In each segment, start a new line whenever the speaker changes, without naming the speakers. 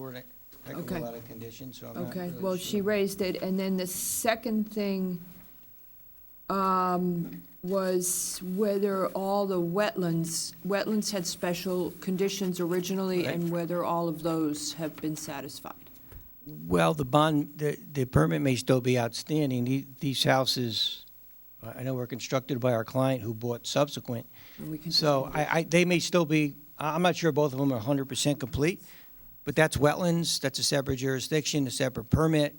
were a heck of a
Okay.
lot of conditions, so I'm not
Okay,
really
well,
sure.
she raised it, and then the second thing um, was whether all the wetlands, wetlands had special conditions originally,
Right.
and whether all of those have been satisfied.
Well, the bond, the, the permit may still be outstanding. The- These houses, I I know were constructed by our client who bought subsequent.
And we can just
So
move
I, I, they may still be, I- I'm not sure both of them are hundred percent complete, but that's wetlands, that's a separate jurisdiction, a separate permit.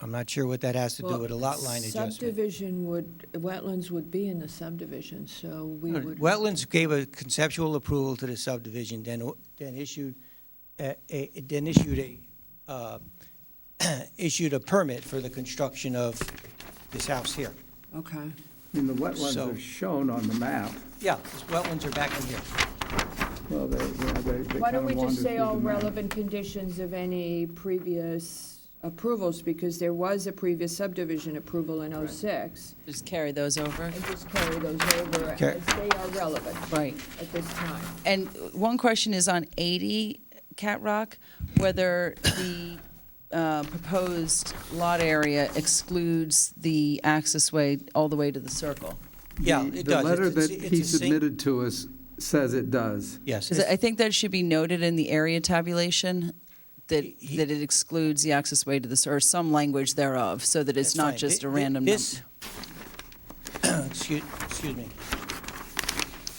I'm not sure what that has to do
Well,
with a lot line adjustment.
Subdivision would, wetlands would be in the subdivision, so we would.
Wetlands gave a conceptual approval to the subdivision, then, then issued, a, a, then issued a, uh, issued a permit for the construction of this house here.
Okay,
I mean, the wetlands
So-
are shown on the map.
Yeah, these wetlands are back in here.
Well, they, they kind of wander
why don't we just say
through
all
the map.
relevant conditions of any previous approvals, because there was a previous subdivision approval in '06.
Just carry those over.
and just carry those over as
Okay.
they are relevant
Right.
at this time.
And one question is on 80 Cat Rock, whether the uh, proposed lot area excludes the accessway all the way to the circle.
Yeah,
The-
it does.
The letter
It's-
that
it's-
he
it's a sing-
submitted to us says it does.
Yes.
'Cause I think that should be noted in the area tabulation, that,
He-
that it excludes the accessway to the, cir- or some language thereof, so that it's
That's
not
fine.
just a
Thi- thi-
random number.
this- Excuse excuse me.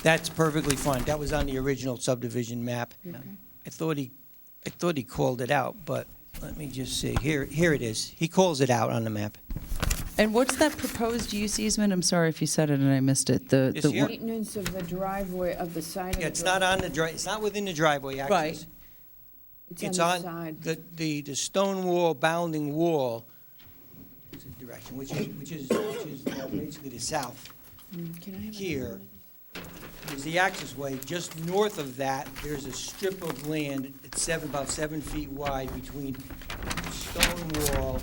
That's perfectly fine. That was on the original subdivision map. I thought he, I thought he called it out, but let me just see. Here, here it is. He calls it out on the map.
And what's that proposed use easement? I'm sorry if you said it and I missed it. The,
It's
the
here.
one-
Maintenance of the driveway, of the side of
Yeah,
the
it's not
driveway.
on the dri, it's not within the driveway access.
Right.
It's on the side.
the, the, the stone wall, bounding wall, is the direction, which is, which is, which is uh, basically the south.
Can I have
here is the access way. Just north of that, there's a strip of land, it's seven, about seven feet wide between the stone wall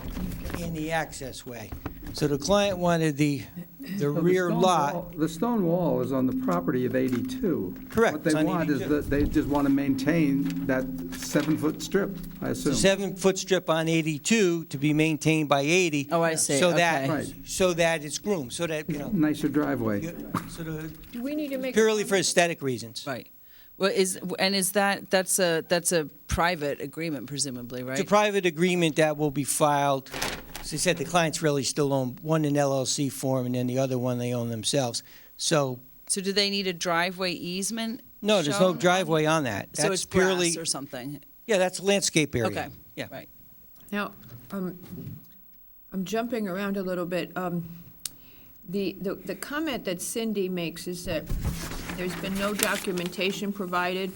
and the access way. So the client wanted the, the
So the
rear
stone
lot.
wall- The stone wall is on the property of 82.
Correct,
What
it's
they
on
want is
82.
that, they just want to maintain that seven-foot strip, I assume.
Seven-foot strip on 82 to be maintained by 80.
Oh, I see.
So that,
Right.
so that it's groomed, so that, you know,
Nicer driveway.
you- so the-
Do we need to make? a
purely for
comment?
aesthetic reasons.
Right. Well, is, and is that, that's a, that's a private agreement presumably, right?
It's a private agreement that will be filed. As I said, the clients really still own, one in LLC form, and then the other one they own themselves. So,
So do they need a driveway easement?
no, there's no
shown?
driveway on that.
So
That's
it's
purely,
grass or something?
yeah, that's landscape area.
Okay.
Yeah.
Right.
Now, um, I'm jumping around a little bit. Um, The, the the comment that Cindy makes is that there's been no documentation provided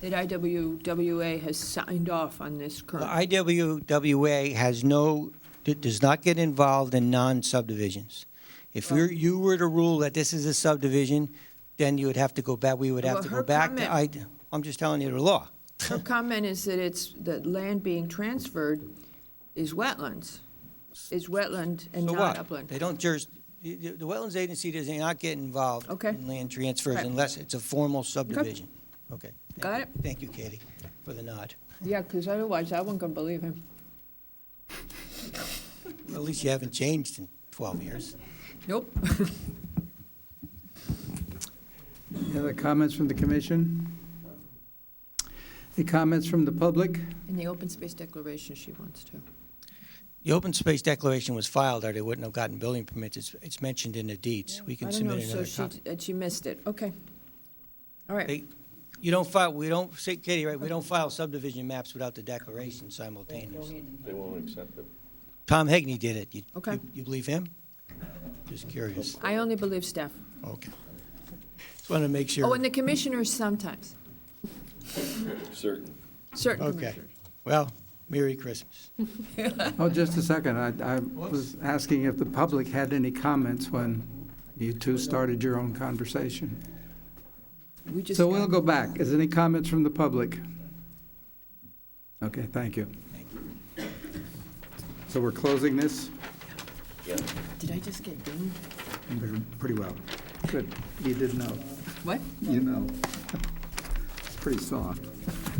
that IWWA has signed off on this
The
current.
IWWA has no, d- does not get involved in non-subdivisions. If you're, you were to rule that this is a subdivision, then you would have to go back, we would have
Well,
to go
her
back to, I,
comment-
I'm just telling you the law.
Her comment is that it's, that land being transferred is wetlands, is wetland and
So
not
what?
upland.
They don't juris, the, the the Wetlands Agency does not get involved
Okay.
in land transfers
Right.
unless it's a formal subdivision. Okay. Thank
Got
you.
it.
Thank you, Katie, for the nod.
Yeah, because otherwise I wasn't going to believe him.
At least you haven't changed in 12 years.
Nope.
Any other comments from the commission? Any comments from the public?
In the open space declaration, she wants to.
The open space declaration was filed, or they wouldn't have gotten building permits. It's, it's mentioned in the deeds. We can submit
I
another
don't know, so
copy.
she, uh, she missed it. Okay. All right.
They- You don't file, we don't, say, Katie, right, we don't file subdivision maps without the declaration simultaneously.
They won't accept it.
Tom Hegney did it. You-
Okay.
you- You believe him? Just curious.
I only believe staff.
Okay. Just want to make sure.
Oh, and the commissioners sometimes,
Certain.
certain
Okay.
commissioners.
Well, Merry Christmas.
Oh, just a second. I, I was asking if the public had any comments when you two started your own conversation.
We just
So we'll
got-
go back. Is there any comments from the public? Okay, thank you. So we're closing this
Did I just get dinged?
pretty well. Good. You did know.
What?
You know. Pretty soft.